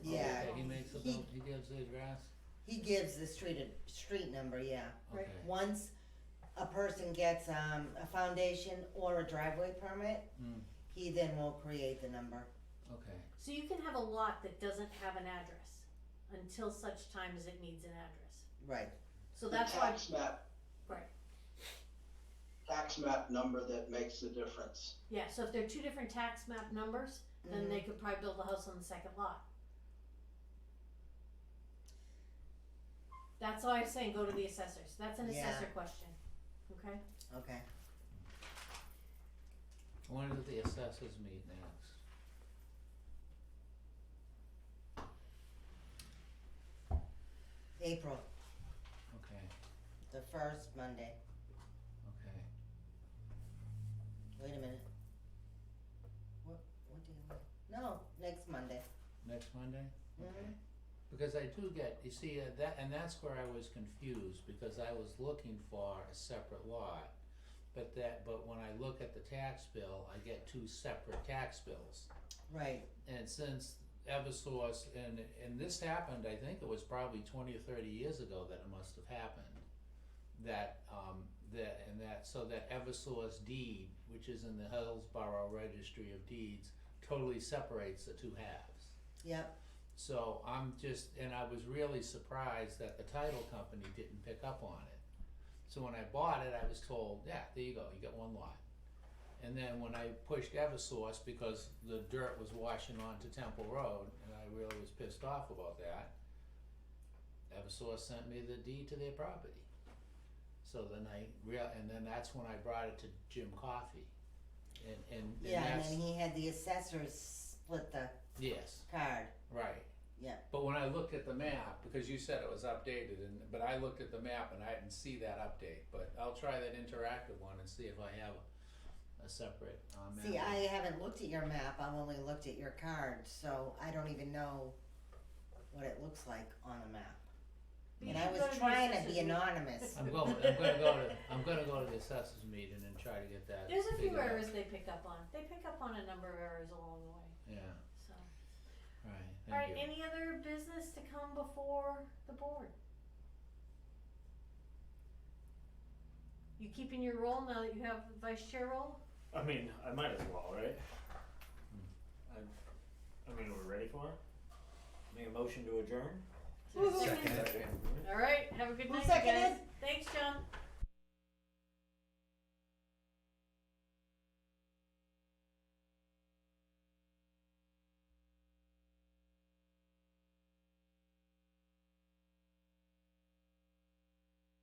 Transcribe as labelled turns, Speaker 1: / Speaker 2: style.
Speaker 1: Oh, gives the address?
Speaker 2: He gives the street a street number, yeah.
Speaker 3: Right.
Speaker 1: Okay.
Speaker 2: Once a person gets um, a foundation or a driveway permit,
Speaker 1: Mm,
Speaker 2: he then will create the number.
Speaker 1: okay.
Speaker 3: So you can have a lot that doesn't have an address until such time as it needs an address.
Speaker 2: Right.
Speaker 3: So that's
Speaker 4: the
Speaker 3: why,
Speaker 4: tax map.
Speaker 3: Right.
Speaker 4: Tax map number that makes the difference.
Speaker 3: yeah, so if they're two different tax map numbers,
Speaker 2: Mm-hmm.
Speaker 3: then they could probably build a house on the second lot. That's why I was saying go to the assessors, that's an
Speaker 2: Yeah.
Speaker 3: assessor question, okay?
Speaker 2: Mhm. Okay.
Speaker 1: When do the assessors meet next?
Speaker 2: April,
Speaker 1: Okay,
Speaker 2: the first Monday.
Speaker 1: okay.
Speaker 2: Wait a minute. What? What do you mean? No, next Monday.
Speaker 1: Next Monday? Okay.
Speaker 2: Mhm.
Speaker 1: Because I do get, you see, uh, that, and that's where I was confused, because I was looking for a separate lot. But that, but when I look at the tax bill, I get two separate tax bills.
Speaker 2: Right.
Speaker 1: And since Eversource, and, and this happened, I think it was probably twenty or thirty years ago that it must have happened. That, um, that, and that, so that Eversource deed, which is in the Hillsborough Registry of Deeds, totally separates the two halves.
Speaker 2: Yep.
Speaker 1: So I'm just, and I was really surprised that the title company didn't pick up on it. So when I bought it, I was told, yeah, there you go, you got one lot. And then when I pushed Eversource because the dirt was washing onto Temple Road, and I really was pissed off about that, Eversource sent me the deed to their property. So then I real, and then that's when I brought it to Jim Coffey. And, and, and
Speaker 2: Yeah, and
Speaker 1: that's,
Speaker 2: then he had the assessors split the
Speaker 1: yes.
Speaker 2: card.
Speaker 1: Right.
Speaker 2: Yeah.
Speaker 1: But when I looked at the map, because you said it was updated, and, but I looked at the map and I didn't see that update, but I'll try that interactive one and see if I have a separate, uh map.
Speaker 2: See, I haven't looked at your map. I've only looked at your card, so I don't even know what it looks like on the map.
Speaker 3: But you
Speaker 2: And I
Speaker 3: should
Speaker 2: was
Speaker 3: go the
Speaker 2: trying to
Speaker 3: assessors
Speaker 2: be
Speaker 3: meeting.
Speaker 2: anonymous.
Speaker 1: I'm going, I'm gonna go to, I'm gonna go to the assessors meeting and try to get that
Speaker 3: There's a few
Speaker 1: figured out.
Speaker 3: errors they pick up on, they pick up on a number of errors along the way,
Speaker 1: Yeah,
Speaker 3: so.
Speaker 1: right, thank
Speaker 3: Alright,
Speaker 1: you.
Speaker 3: any other business to come before the board? You keeping your role now that you have the vice chair role?
Speaker 5: I mean, I might as well, right? I, I mean, we're ready for it. Make a motion to adjourn.
Speaker 3: Alright, have a good
Speaker 2: Who
Speaker 3: night, you
Speaker 2: seconded?
Speaker 3: guys. Thanks, John.